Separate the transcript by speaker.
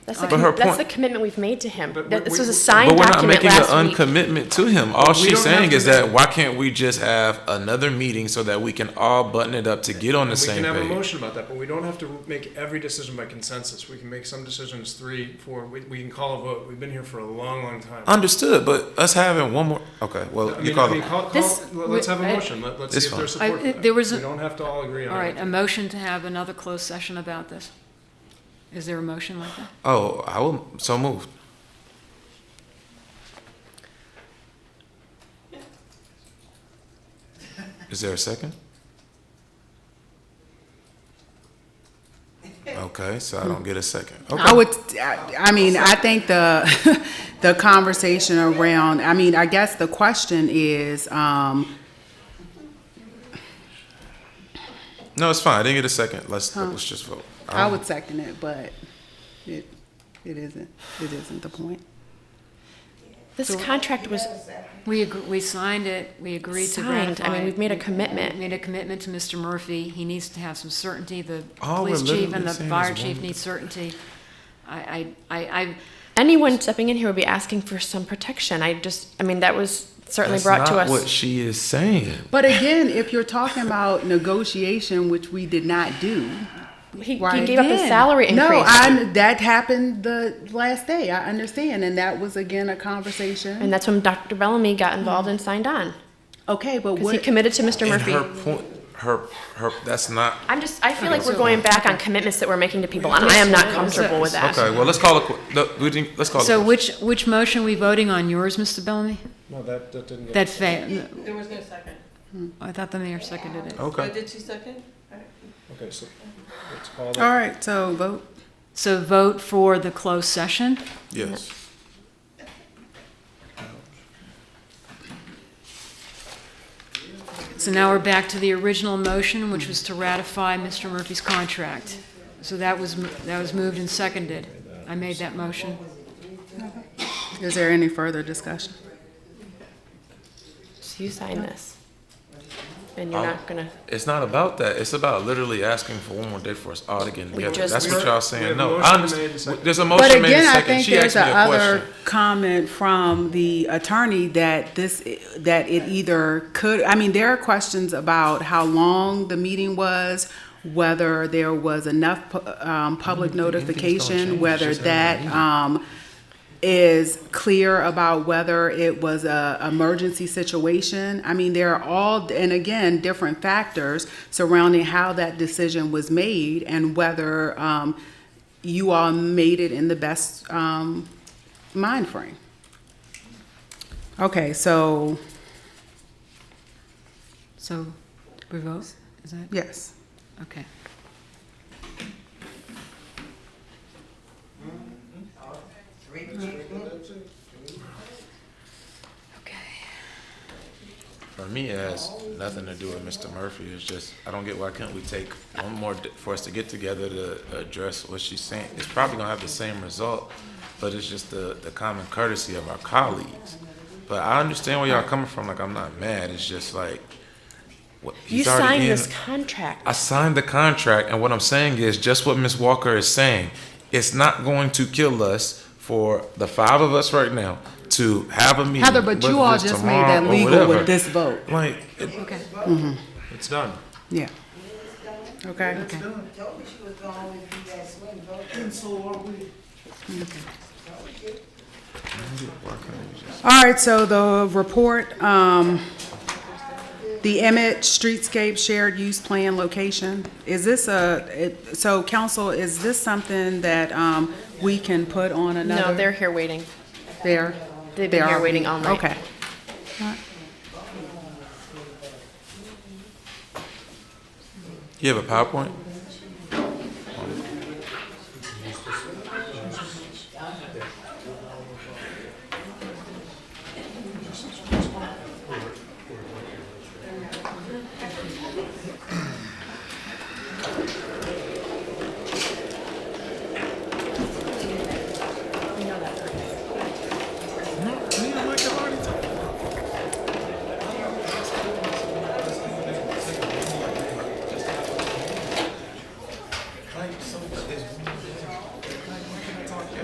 Speaker 1: That's the,
Speaker 2: But her
Speaker 1: com- that's
Speaker 2: point-
Speaker 1: the commitment we've made to him.
Speaker 3: But
Speaker 1: That-
Speaker 3: we-
Speaker 1: This
Speaker 3: we-
Speaker 1: was a
Speaker 3: we-
Speaker 1: signed
Speaker 2: But we're not
Speaker 1: document
Speaker 2: making an
Speaker 1: last week.
Speaker 2: uncommitment to him. All
Speaker 3: we
Speaker 2: she's
Speaker 3: don't have
Speaker 2: saying
Speaker 3: to
Speaker 2: is
Speaker 3: do
Speaker 2: that
Speaker 3: that.
Speaker 2: why can't we just have another meeting so that we can all button it up to get on the
Speaker 3: We
Speaker 2: same
Speaker 3: can have a
Speaker 2: page?
Speaker 3: motion about that, but we don't have to make every decision by consensus. We can make some decisions three, four, we, we can call a vote. We've been here for a long, long time.
Speaker 2: Understood, but us having one more, okay,
Speaker 3: I
Speaker 2: well,
Speaker 3: mean,
Speaker 2: you call
Speaker 3: I mean,
Speaker 2: it.
Speaker 3: call, call,
Speaker 4: This-
Speaker 3: let's have a
Speaker 4: I-
Speaker 3: motion. Let, let's
Speaker 2: It's
Speaker 3: see if there's
Speaker 4: fine.
Speaker 3: support.
Speaker 4: I-
Speaker 3: for that.
Speaker 4: there was a-
Speaker 3: We don't have to all agree
Speaker 4: All
Speaker 3: on
Speaker 4: right, a
Speaker 3: it.
Speaker 4: motion to have another closed session about this? Is there a motion like that?
Speaker 2: Oh, I will, so moved. Is there a second? Okay, so I don't get a second. Okay.
Speaker 5: I would, I I mean, I think the, the conversation around, I mean, I guess the question is, um,
Speaker 2: No, it's fine. I didn't get a second. Let's let's just vote.
Speaker 5: I
Speaker 1: Oh.
Speaker 5: would second it, but it, it isn't, it isn't the point.
Speaker 1: This contract was
Speaker 4: We, ag- we signed it, we agreed to ratify
Speaker 1: signed. I mean,
Speaker 4: it.
Speaker 1: we've made a
Speaker 4: We-
Speaker 1: commitment.
Speaker 4: we Made a commitment to Mr. Murphy, he needs to have some certainty, the
Speaker 2: All we're
Speaker 4: police chief
Speaker 2: literally
Speaker 4: and the
Speaker 2: saying is
Speaker 4: fire
Speaker 2: one
Speaker 4: chief
Speaker 2: thing.
Speaker 4: need certainty. I, I, I, I,
Speaker 1: anyone stepping in here would be asking for some protection. I just, I mean, that was certainly
Speaker 2: That's
Speaker 1: brought to
Speaker 2: not
Speaker 1: us.
Speaker 2: What she is saying.
Speaker 5: But again, if you're talking about negotiation, which we did not do.
Speaker 1: he, he
Speaker 5: Right.
Speaker 1: gave up his
Speaker 4: Then-
Speaker 1: salary increase.
Speaker 5: No, I, that happened the last day, I understand, and that was again a
Speaker 1: and
Speaker 5: conversation.
Speaker 1: that's when Dr. Bellamy got involved and signed on
Speaker 5: Okay, but
Speaker 1: because he
Speaker 5: what,
Speaker 1: committed to Mr.
Speaker 2: And
Speaker 1: Murphy.
Speaker 2: her point. Her her. That's not
Speaker 1: I'm just, I feel like we're going back on commitments that we're making to people, and I am not comfortable with that.
Speaker 2: okay. Well, let's call it. qu- no, We didn't, let's call
Speaker 4: so
Speaker 2: it.
Speaker 4: which, which motion we voting on, yours, Mr. Bellamy?
Speaker 3: No, that, that didn't get.
Speaker 4: That fa, Hmm,
Speaker 6: There was no second.
Speaker 4: I thought the mayor seconded it.
Speaker 6: Oh,
Speaker 2: okay.
Speaker 6: Did she second?
Speaker 3: Okay, so let's call
Speaker 5: all
Speaker 3: that.
Speaker 5: right, so vote.
Speaker 4: So vote for the closed session?
Speaker 2: Yes.
Speaker 4: So now we're back to the original motion, which was to ratify Mr. Murphy's contract. So that was, mo- that was moved and seconded. I made that motion.
Speaker 5: Is there any further discussion?
Speaker 1: So you sign this, and you're
Speaker 2: I'll-
Speaker 1: not gonna.
Speaker 2: It's not about that. It's about literally asking for one more day for us all to get together.
Speaker 1: just-
Speaker 2: that's what
Speaker 3: We-
Speaker 2: y'all
Speaker 3: we
Speaker 2: saying.
Speaker 3: have
Speaker 2: No, I
Speaker 3: motion made and
Speaker 2: understand.
Speaker 3: seconded.
Speaker 2: There's a motion
Speaker 5: But
Speaker 2: made
Speaker 5: again,
Speaker 2: and
Speaker 5: I
Speaker 2: second.
Speaker 5: think
Speaker 2: She asked
Speaker 5: there's
Speaker 2: me
Speaker 5: a
Speaker 2: a
Speaker 5: other
Speaker 2: question.
Speaker 5: comment from the attorney that this, that it either could, I mean, there are questions about how long the meeting was, whether there was enough, pu- um, public notification,
Speaker 2: change.
Speaker 5: whether
Speaker 2: It's just having a
Speaker 5: that,
Speaker 2: meeting.
Speaker 5: um, is clear about whether it was a emergency situation. I mean, there are all, and again, different factors surrounding how that decision was made and whether um, you all made it in the best um, mind frame. Okay, so
Speaker 4: So we vote? Is that,
Speaker 5: yes,
Speaker 4: okay.
Speaker 2: For me, it has nothing to do with Mr. Murphy. It's just I don't get why can't we take one more d- for us to get together to address what she's saying. It's probably gonna have the same result, but it's just the the common courtesy of our colleagues. But I understand where y'all coming from. Like I'm not mad. It's just like what,
Speaker 1: You
Speaker 2: he's already
Speaker 1: signed
Speaker 2: in-
Speaker 1: this contract.
Speaker 2: I signed the contract, and what I'm saying is just what Ms. Walker is saying. It's not going to kill us for the five of us right now to have a meeting.
Speaker 5: Heather, but you
Speaker 2: whether
Speaker 5: all
Speaker 2: it's
Speaker 5: just made
Speaker 2: tomorrow
Speaker 5: that
Speaker 2: Uh, or
Speaker 5: legal
Speaker 2: whatever.
Speaker 5: with this vote.
Speaker 2: Like, it-
Speaker 3: It's done.
Speaker 5: Yeah. Okay.
Speaker 7: told me she was gonna always be that swing voter.
Speaker 5: All right, so the report, um, the Emmett Streetscape Shared Use Plan location, is this a, it- so council, is this something that, um, we can put on another?
Speaker 1: No, they're here waiting.
Speaker 5: They're.
Speaker 1: They've
Speaker 5: they
Speaker 1: been here
Speaker 5: are
Speaker 1: waiting all night.
Speaker 5: Okay.
Speaker 2: you have a PowerPoint?